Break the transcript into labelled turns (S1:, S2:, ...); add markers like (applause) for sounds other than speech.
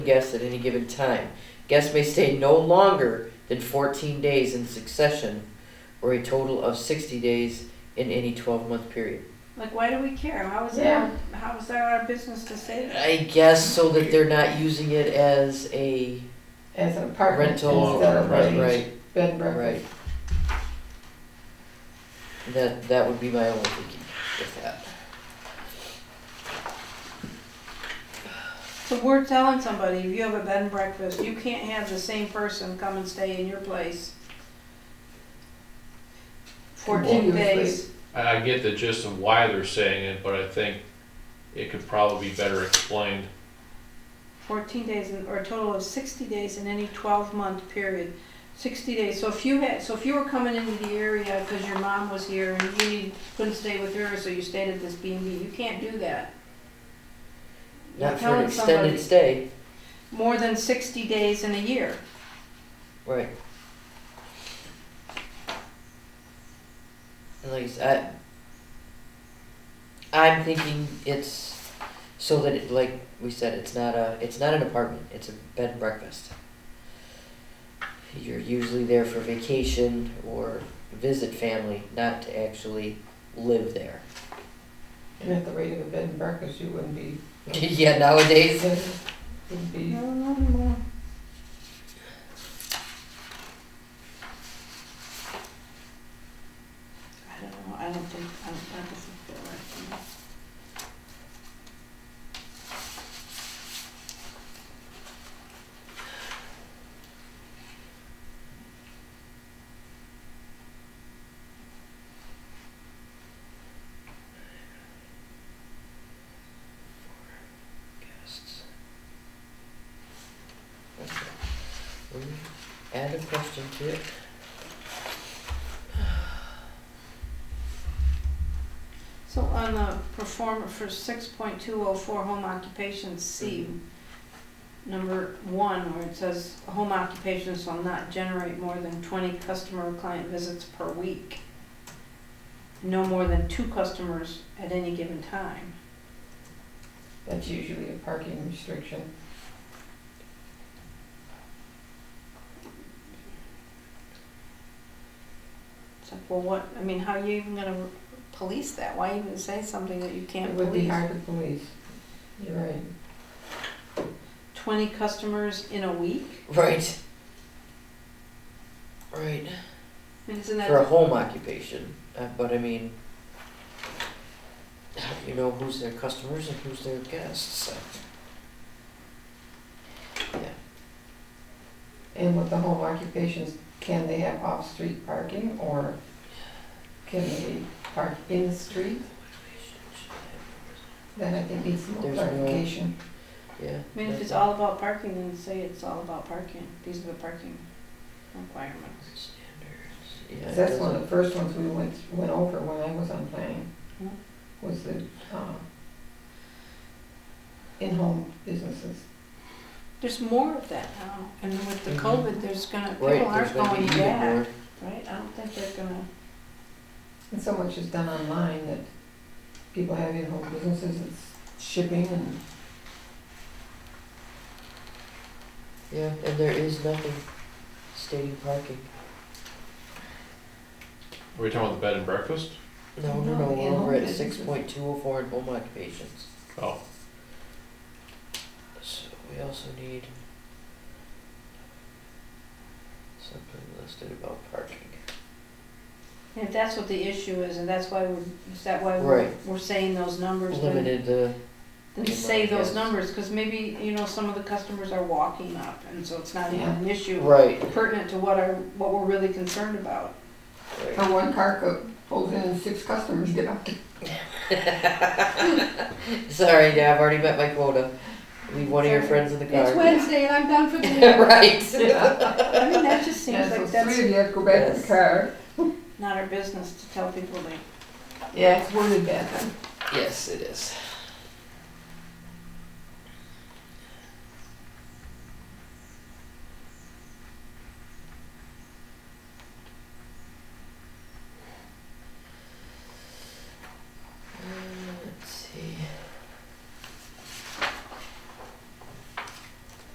S1: guests at any given time. Guests may stay no longer than 14 days in succession or a total of 60 days in any 12 month period.
S2: Like, why do we care? How is
S3: Yeah.
S2: that? How is that our business to say that?
S1: I guess so that they're not using it as a
S3: as an apartment
S1: rental.
S3: instead of
S1: Right,
S3: a
S1: right,
S3: bed and breakfast.
S1: right. That, that would be my only thinking with that.
S2: So we're telling somebody, if you have a bed and breakfast, you can't have the same person come and stay in your place. Fourteen
S3: Continuously.
S2: days.
S4: I, I get the gist of why they're saying it, but I think it could probably be better explained.
S2: Fourteen days, in- or a total of sixty days in any twelve-month period. Sixty days. So if you had, so if you were coming into the area because your mom was here and you need- couldn't stay with her, so you stayed at this B and B, you can't do that. You're
S1: Not for an
S2: telling somebody
S1: extended stay.
S2: More than sixty days in a year.
S1: Right. And like I said, I, I'm thinking it's so that it, like we said, it's not a, it's not an apartment, it's a bed and breakfast. You're usually there for vacation or visit family, not to actually live there. (laughs)
S3: And at the rate of a bed and breakfast, you
S1: (laughs)
S3: wouldn't be,
S1: yeah, nowadays,
S3: wouldn't be,
S2: No, no, no. I don't know, I don't think, I don't, I don't think they're right. for me.
S1: guests. Okay. We Add a question to it.
S2: So on the performer for six point two oh four home occupations, C, number one, where it says, home occupation shall not generate more than twenty customer or client visits per week. No more than two customers at any given time.
S3: that's usually a parking restriction.
S2: It's like, well, what, I mean, how are you even gonna police that? Why even say something that you
S3: It
S2: can't
S3: would be
S2: police?
S3: hard to police. You're right.
S2: Twenty customers in a week?
S1: Right. Right.
S2: I mean, isn't
S1: For a
S2: that,
S1: home occupation, uh, but I mean, you know who's their customers and who's their guests.
S3: And with the home occupations, can they have off-street parking or can they park in the street? That I think needs more
S1: There's no-
S3: clarification.
S1: Yeah.
S2: I mean, if it's all about parking, then say it's all about parking. These are the parking requirements.
S1: Standards. Yeah. it
S3: 'Cause that's one of
S1: doesn't-
S3: the first ones we went, went over when I was on planning,
S2: Hmm.
S3: was the, uh, in-home businesses.
S2: There's more of that now, and with the
S1: Mhm.
S2: COVID, there's gonna, people
S1: Right,
S2: are
S1: there's gonna be
S2: going
S1: even more.
S2: back, right? I don't think they're gonna,
S3: And so much is done online that people have in-home businesses, it's shipping and
S1: Yeah, and there is nothing stating parking.
S4: Are we talking about the bed and breakfast?
S1: No, no, no,
S3: No,
S1: we're
S3: in-home
S1: over at six
S3: businesses.
S1: point two oh four in home occupations.
S4: Oh,
S1: So we also need something listed about parking.
S2: and if that's what the issue is, and that's why we're, is that why we're,
S1: Right.
S2: we're saying those numbers, then
S1: Limited the,
S2: Then
S1: Good
S2: say
S1: luck,
S2: those
S1: yes.
S2: numbers, because maybe, you know, some of the customers are walking up, and so it's not even an issue
S1: right,
S2: pertinent to what are, what we're really concerned about.
S1: right.
S3: Or one car go- pulls in and six customers get out.
S1: (laughs) Sorry, yeah, I've already met my quota. Leave one of your
S2: Sorry.
S1: friends in the
S2: It's
S1: car.
S2: Wednesday and I'm done (laughs) for the day.
S1: (laughs) Right.
S2: I mean, that just seems
S3: And so
S2: like
S3: three
S2: that's
S3: of you have to go back to
S1: Yes.
S3: the car.
S2: not our business to tell people they,
S3: Yeah, it's worded bad.
S1: Yes, it is. Um,